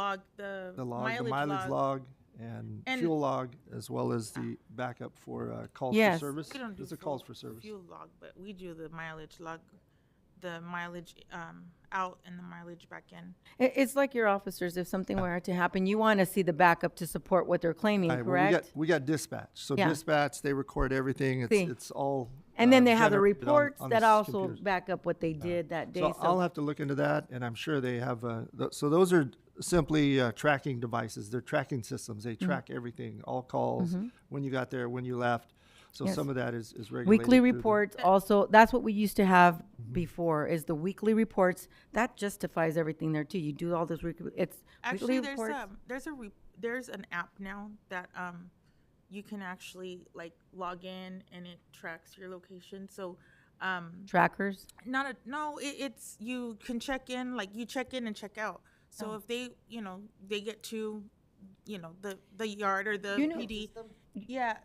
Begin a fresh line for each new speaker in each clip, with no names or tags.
log, the
The log, the mileage log and
And-
fuel log, as well as the backup for uh, calls for
Yes.
service.
We don't do
There's a
fuel-
calls for service.
Fuel log, but we do the mileage log, the mileage um, out and the mileage back in.
It, it's like your officers, if something were to happen, you want to see the backup to support what they're claiming,
Right, well, we got-
correct?
We got dispatch. So
Yeah.
dispatch, they record everything. It's,
See.
it's all.
And
uh,
then they have the
generated on-
reports
on
that
the s-
also
computers.
back up what they did that day,
So I'll
so,
have to look into that and I'm sure they have, uh, th- so those are simply uh, tracking devices. They're tracking systems.
Mm-hmm.
They track everything, all calls, when you got there, when you left. So some of that is, is regulated.
weekly
through the- Mm-hmm.
reports also, that's what we used to have before, is the weekly reports. That justifies everything there too, you do all those, weekly- it's
Actually,
weekly
there's
reports.
um there's a re- there's an app now that um you can actually like log in and it tracks your location. So um
Trackers,
not a no, it, it's you can check in like you check in and check out.
Oh.
So if they you know they get to you know the the yard or the
You know-
PD, yeah,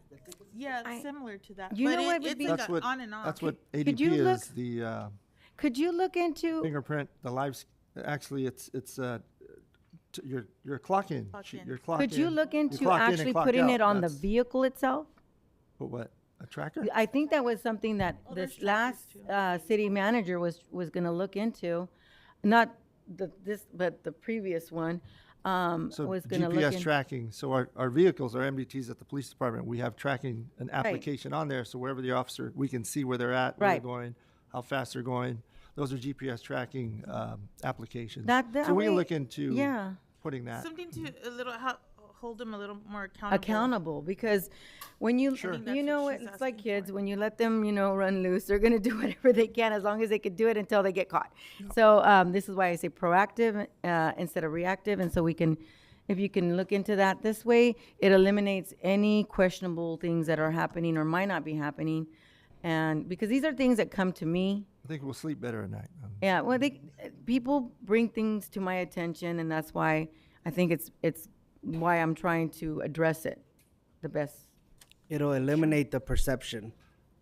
yeah,
I-
similar to that.
You
but
know
it-
what would
it's
be-
like
That's
a
what,
on and off.
that's what
Could you
ADP
look-
is, the, uh,
could you look into,
fingerprint, the live, sc- actually, it's, it's, uh, t- your, your clock in,
Clock
sheet,
in.
your clock in.
could you look
your
into
clock in and
actually
clock
putting
out.
it on the
That's-
vehicle itself?
But what, a tracker?
I think that was something that
there's
this
trackers
last,
too.
uh, city manager was, was gonna look into. Not the, this, but the previous one, um,
So
was gonna look
GPS
into.
tracking, so our, our vehicles, our MDTs at the police department, we have tracking, an application on there, so wherever the officer, we can see where they're at, where they're
Right.
going, how fast they're going. Those are GPS tracking, um, applications.
That- that
So we can
way-
look into
Yeah,
putting that.
something to a little help, hold them a little more accountable.
accountable, because when you,
that's
you
what
know,
she's
it's like
asking
kids, when you let them, you know, run loose, they're gonna do whatever they can, as long as they can do it until they get caught. So, um, this is why I say proactive, uh, instead of reactive, and so we can, if you can look into that this way, it eliminates any questionable things that are happening or might not be happening. And, because these are things that come to me,
I think we'll sleep better at night. um,
yeah, well, they uh, people bring things to my attention, and that's why I think it's it's why I'm trying to address it the best
It'll eliminate the perception.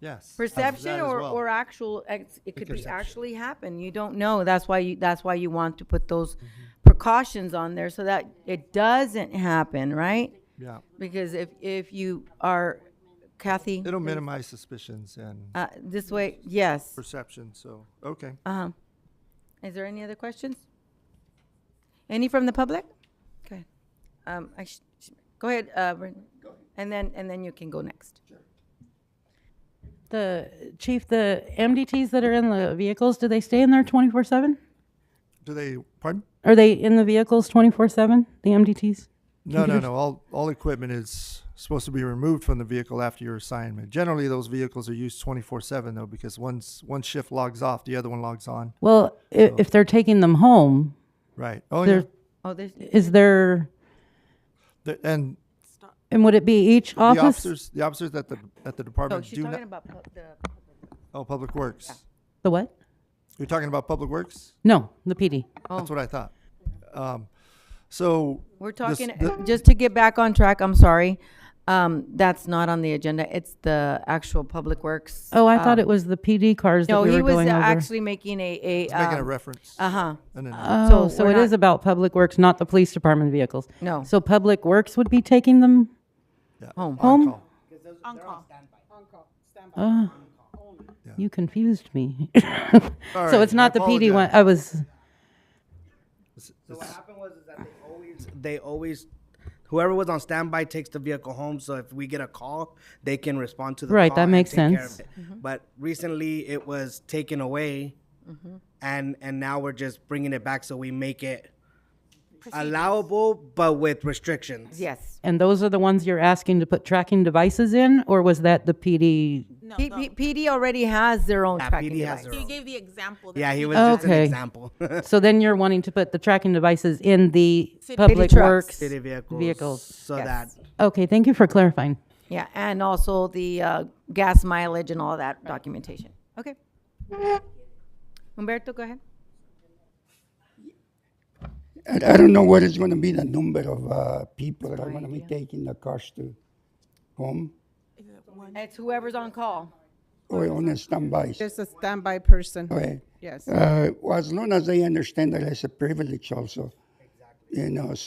Yes.
perception or, or actual ex- it could be actually happen. You don't know. That's why you that's why you want to put those
Mm-hmm.
precautions on there so that it doesn't happen, right?
Yeah,
Because if if you are Kathy,
it'll minimize suspicions and
uh, this way, yes.
perception, so, okay.
Uh-huh. Is there any other questions? Any from the public? Okay. Um, I sh- sh- go ahead, uh, Brenda. and then, and then you can go next.
The chief, the MDTs that are in the vehicles, do they stay in there twenty-four seven?
Do they, pardon?
Are they in the vehicles twenty-four seven, the MDTs?
No, no, no. All, all equipment is supposed to be removed from the vehicle after your assignment. Generally, those vehicles are used twenty-four seven though, because once, one shift logs off, the other one logs on.
Well, i- if they're taking them home,
Right. Oh, yeah.
They're-
Oh, there's,
is there,
The- And
and would it be each
the
office?
officers, the officers at the, at the
no,
department
Oh, she's
do not,
talking about pub- the,
oh, Public Works.
The what?
You're talking about Public Works?
No, the PD.
Oh.
That's what I thought. Um, so.
we're
this-
talking, uh,
the-
just to get back on track, I'm sorry. Um, that's not on the agenda. It's the actual Public Works. um,
Oh, I
Ah.
thought it was the PD cars that
No,
we
he
were
was
going over.
actually making a, a,
Making a
um,
reference.
uh-huh.
And then-
so
Oh, so
we're
it
not-
is about Public Works, not the police department vehicles.
No.
So Public Works would be taking them?
yeah,
home.
on
Home?
call.
on call.
Oh, you confused me.
right,
So it's
I
not the PD one, I was,
So what happened was is that they always they always whoever was on standby takes the vehicle home. So if we get a call, they can respond to the
Right,
call
that
and
makes
take care of
sense.
it. But recently it was taken away, Mm-hmm. and and now we're just bringing it back so we make it allowable but with restrictions.
Yes.
and those are the ones you're asking to put tracking devices in, or was that the PD?
No,
P-
no.
P- PD already has their own
Yeah,
tracking
PD has
device.
their
He
own.
gave the example. that
Yeah,
he
he was
Oh.
just an
Okay.
example.
So then you're wanting to put the tracking devices in the public
trucks.
works?
City vehicles.
Vehicles,
So
yes.
that
Okay, thank you for clarifying.
Yeah, and also the uh, gas mileage and all that documentation. Okay. Humberto, go ahead.
I, I don't know what is going to be the number of uh, people that are going to be taking the cars to home
It's whoever's on call.
or on a standby.
There's a standby person.
Okay.
Yes.
Uh, as long as they understand that it's a privilege also, you know,